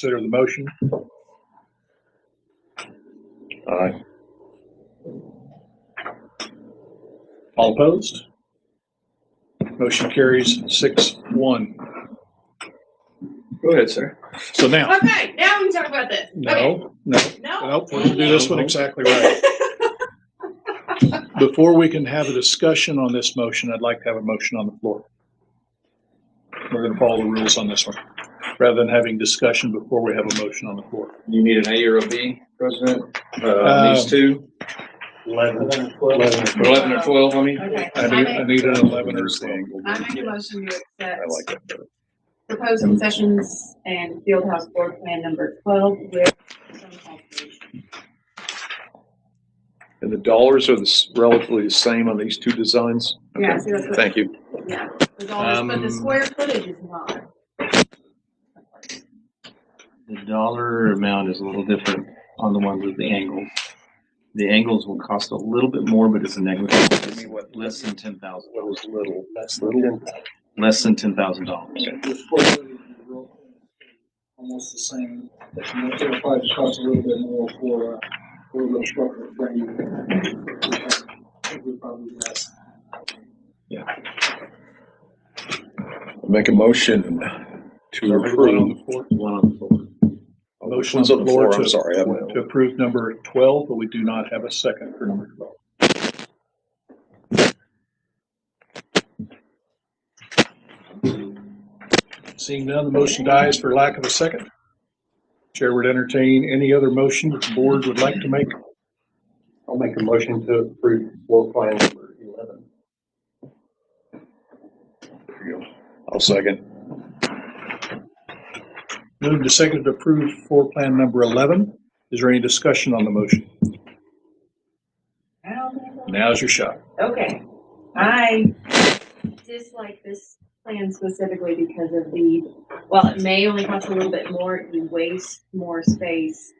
consider the motion? Aye. All opposed? Motion carries six one. Go ahead, sir. So now, Okay, now we can talk about this. Okay. no, no, No. Nope, we're gonna do this one exactly right. Before we can have a discussion on this motion, I'd like to have a motion on the floor. We're gonna follow the rules on this one, rather than having discussion before we have a motion on the floor. You need an A or a B, President? Uh, Um, these two, Eleven. eleven or twelve, I mean? Okay, I I need, I make, need an eleven or something. I make a motion to accept that better. proposed concessions and field house board plan number twelve with some alterations. And the dollars are the s- relatively the same on these two designs? Yeah, see, that's what, Thank you. yeah, the dollars, but the Um, square footage is not. The dollar amount is a little different on the ones with the angles. The angles will cost a little bit more, but it's a negligible, less than ten thousand, That was little. That's little. less than ten thousand dollars. Almost the same, it'll probably just cost a little bit more for, uh, for the structure frame. Make a motion to Everyone on approve. the floor? One on the floor. Motion One's on the floor, to- I'm sorry. I'm- To approve number twelve, but we do not have a second for number twelve. Seeing none, the motion dies for lack of a second. Chair would entertain any other motion that the board would like to make. I'll make a motion to approve floor plan number eleven. I'll second. Moved to second to approve floor plan number eleven. Is there any discussion on the motion? I don't think so. Now's your shot. Okay, I dislike this plan specifically because of the, well, it may only cost a little bit more, you waste more space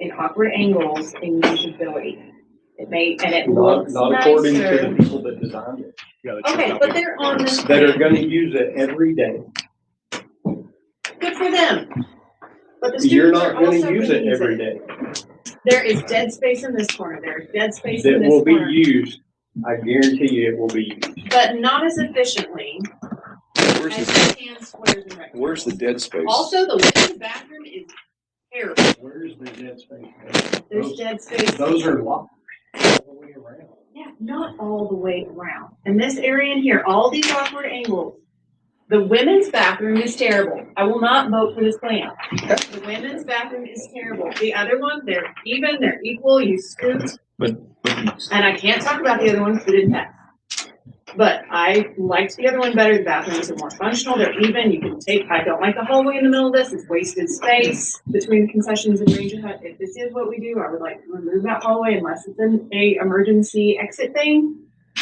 in awkward angles and usability. It may, and it Not, looks not according to nicer. the people that designed it, Yeah, that's your Okay, copy. but they're on this that are plan, gonna use it every day. good for them. But the You're students are not also gonna use gonna it use every it. day. There is dead space in this corner, there is dead space That in this will be corner, used, I guarantee you it will be used. but not as efficiently Where's as the, the tan squares and rectangles. where's the dead space? Also, the women's bathroom is terrible. Where's the dead space? There's dead space. Those are locked all the way around. Yeah, not all the way around. And this area in here, all these awkward angles. The women's bathroom is terrible. I will not vote for this plan. The women's bathroom is terrible. The other one, they're even, they're equal, you scoot. And I can't talk about the other one because it didn't pass. But I liked the other one better. The bathrooms are more functional, they're even, you can take, I don't like the hallway in the middle of this, it's wasted space between concessions and Ranger Hut. If this is what we do, I would like to remove that hallway unless it's an a emergency exit thing.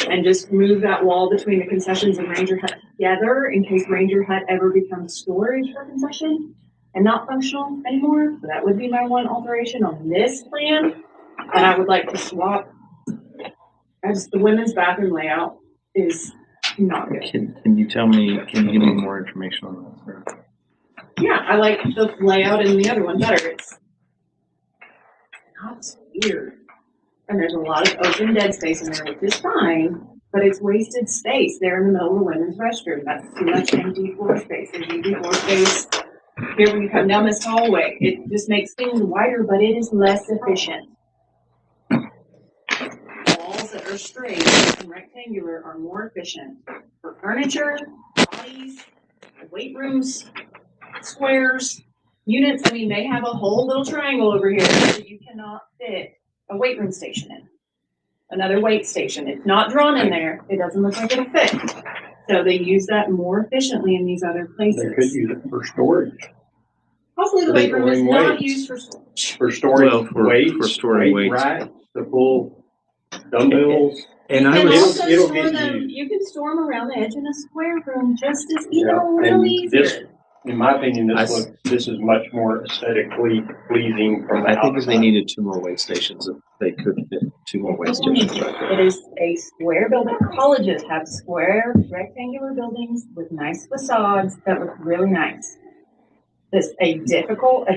And just move that wall between the concessions and Ranger Hut together in case Ranger Hut ever becomes storage for concession and not functional anymore. So that would be my one alteration on this plan. And I would like to swap, as the women's bathroom layout is not good. Can, can you tell me, can you give me more information on that? sir? Yeah, I like the layout in the other one better. It's not weird. And there's a lot of open dead space in there, which is fine, but it's wasted space there in the middle of the women's restroom. That's too much empty floor space. There's empty floor space here when you come down this hallway. It just makes things wider, but it is less efficient. Walls that are straight and rectangular are more efficient for furniture, bodies, weight rooms squares, units, I mean, they have a whole little triangle over here that you cannot fit a weight room station in. Another weight station, it's not drawn in there, it doesn't look like it'll fit. So they use that more efficiently in these other They could places. use it for storage, Hopefully the They weight room is bring not weights. used for storage. for Well, storing for- weights, for storing weight weights. racks, the full dumbbells. And You I can was- also It'll- it'll store get them, used. you can store them around the edge in a square room just as, you Yeah, know, and really this- easy. In my opinion, I this s- look, this is much more aesthetically pleasing from the I think if they outside. needed two more weigh stations, if they could fit two more weigh stations back there. It is a square building. Colleges have square rectangular buildings with nice facades that look really nice. It's a difficult, a